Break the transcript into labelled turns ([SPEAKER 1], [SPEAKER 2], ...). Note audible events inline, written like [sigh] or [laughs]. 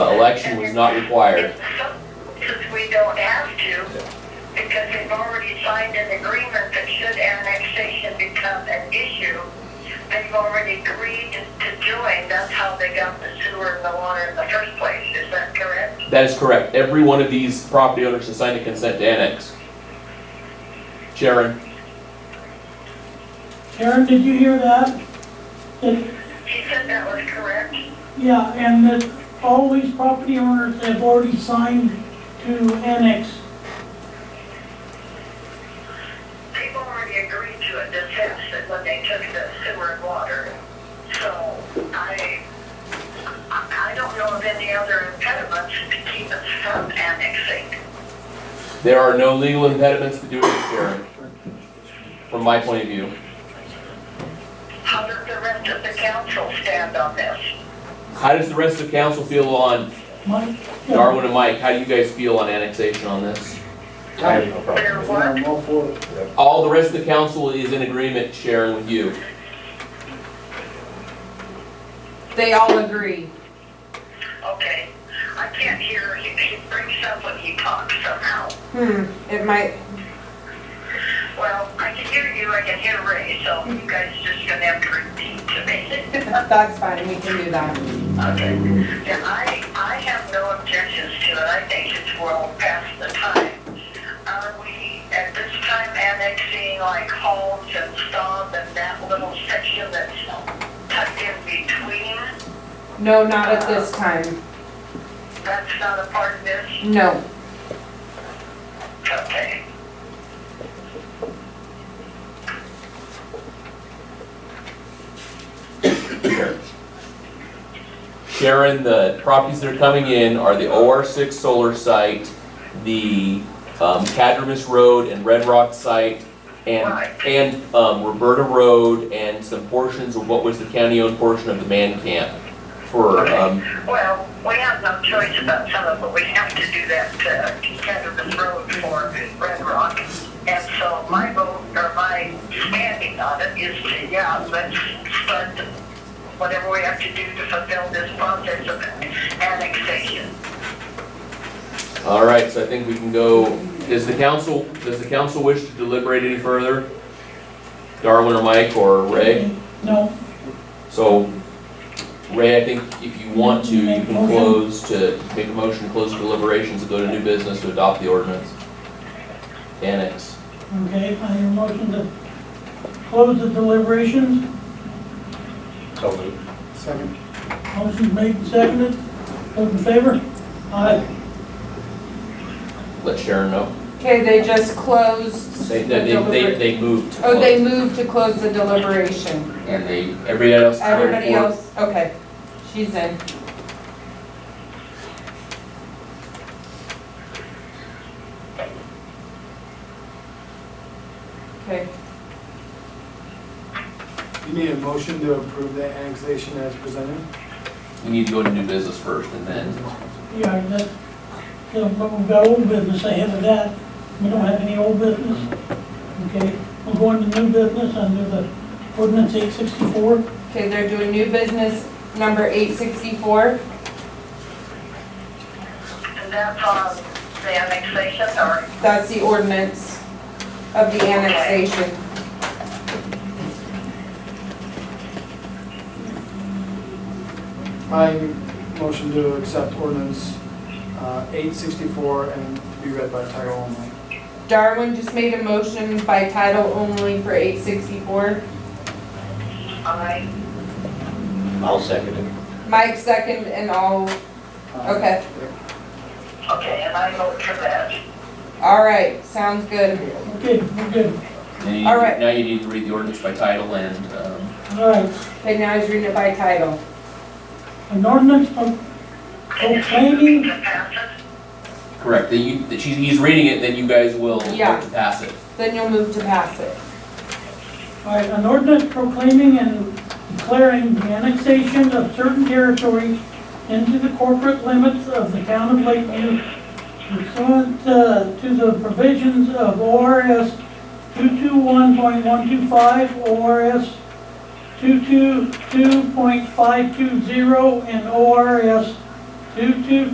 [SPEAKER 1] election was not required.
[SPEAKER 2] If if we don't have to, because we've already signed an agreement that should annexation become an issue, they've already agreed to join, that's how they got the sewer and the water in the first place, is that correct?
[SPEAKER 1] That is correct. Every one of these property owners has signed a consent to annex. Sharon,
[SPEAKER 3] Karen, did you hear that? That,
[SPEAKER 2] She said that was correct?
[SPEAKER 3] yeah, and that all these property owners have already signed to annex.
[SPEAKER 2] They've already agreed to it, this happened when they took the sewer and water. So I, I I don't know of any other impediments to keep us from annexing.
[SPEAKER 1] there are no legal impediments to doing this, Sharon, from my point of view.
[SPEAKER 2] How does the rest of the council stand on this?
[SPEAKER 1] How does the rest of council feel on,
[SPEAKER 3] Mike? yeah.
[SPEAKER 1] Darwin and Mike, how do you guys feel on annexation on this?
[SPEAKER 4] I have no problem.
[SPEAKER 2] There what?
[SPEAKER 4] I'm all for it.
[SPEAKER 1] All the rest of the council is in agreement, Sharon, with you.
[SPEAKER 5] They all agree.
[SPEAKER 2] Okay, I can't hear, he, he brings up when he talks somehow.
[SPEAKER 5] Hmm, it might,
[SPEAKER 2] Well, I can hear you, I can hear Ray, so you guys just gonna have to repeat to me. [laughs]
[SPEAKER 5] that's fine, we can do that.
[SPEAKER 2] Okay, yeah, I, I have no objections to it, I think it's well past the time. Are we at this time annexing like Holmes and Staub and that little section that's tucked in between?
[SPEAKER 5] No, not at this time,
[SPEAKER 2] That's not a part of this?
[SPEAKER 5] no.
[SPEAKER 2] Okay.
[SPEAKER 1] Sharon, the properties that are coming in are the OR six solar site, the, um, Cadmus Road and Red Rock site, and,
[SPEAKER 2] Right.
[SPEAKER 1] and, um, Roberta Road, and some portions of what was the county-owned portion of the man camp for, um,
[SPEAKER 2] Well, we have no choice about some of it. We have to do that uh, Cannabis Road for Red Rock. And so my vote, or my standing on it is to, yeah, let's start whatever we have to do to fulfill this process of annexation.
[SPEAKER 1] all right, so I think we can go, does the council, does the council wish to deliberate any further? Darwin or Mike or Ray?
[SPEAKER 3] No,
[SPEAKER 1] So, Ray, I think if you want to, you can close to, make a motion to close deliberations and go to new business to adopt the ordinance. Annex.
[SPEAKER 3] okay, I hear a motion to close the deliberations.
[SPEAKER 4] So moved. Second.
[SPEAKER 3] Motion made and seconded. Those in favor? Aye.
[SPEAKER 1] Let Sharon know.
[SPEAKER 5] Okay, they just closed.
[SPEAKER 1] They, they,
[SPEAKER 5] the
[SPEAKER 1] they,
[SPEAKER 5] deliber-
[SPEAKER 1] they moved. to
[SPEAKER 5] Oh, they
[SPEAKER 1] close.
[SPEAKER 5] moved to close the deliberation.
[SPEAKER 1] And they, everybody else.
[SPEAKER 5] Everybody else, okay, she's in. Okay,
[SPEAKER 6] You need a motion to approve the annexation as presented?
[SPEAKER 1] We need to go to new business first and then,
[SPEAKER 3] Yeah, that, yeah, but we've got old business ahead of that. We don't have any old business. Okay, we're going to new business under the ordinance eight sixty-four.
[SPEAKER 5] okay, they're doing new business number eight sixty-four.
[SPEAKER 2] And that's on the annexation, or
[SPEAKER 5] That's the ordinance of the annexation.
[SPEAKER 6] My motion to accept ordinance uh, eight sixty-four and to be read by title only.
[SPEAKER 5] Darwin just made a motion by title only for eight sixty-four.
[SPEAKER 2] I,
[SPEAKER 4] I'll second it.
[SPEAKER 5] Mike second and all,
[SPEAKER 6] Uh,
[SPEAKER 5] okay,
[SPEAKER 2] okay, and I vote for that.
[SPEAKER 5] all right, sounds good.
[SPEAKER 3] Okay, we're good.
[SPEAKER 1] then you-
[SPEAKER 5] All right.
[SPEAKER 1] now you need to read the ordinance by title and, um,
[SPEAKER 3] All right,
[SPEAKER 5] Okay, now he's reading it by title.
[SPEAKER 3] an ordinance of proclaiming,
[SPEAKER 2] To pass it?
[SPEAKER 1] correct, then you, that she's, he's reading it, then you guys will vote
[SPEAKER 5] Yeah.
[SPEAKER 1] to pass it.
[SPEAKER 5] Then you'll move to pass it.
[SPEAKER 3] all right, an ordinance proclaiming and declaring the annexation of certain territories into the corporate limits of the town of Lakeview pursuant uh, to the provisions of ORS 221.125, ORS 222.520, and ORS 222.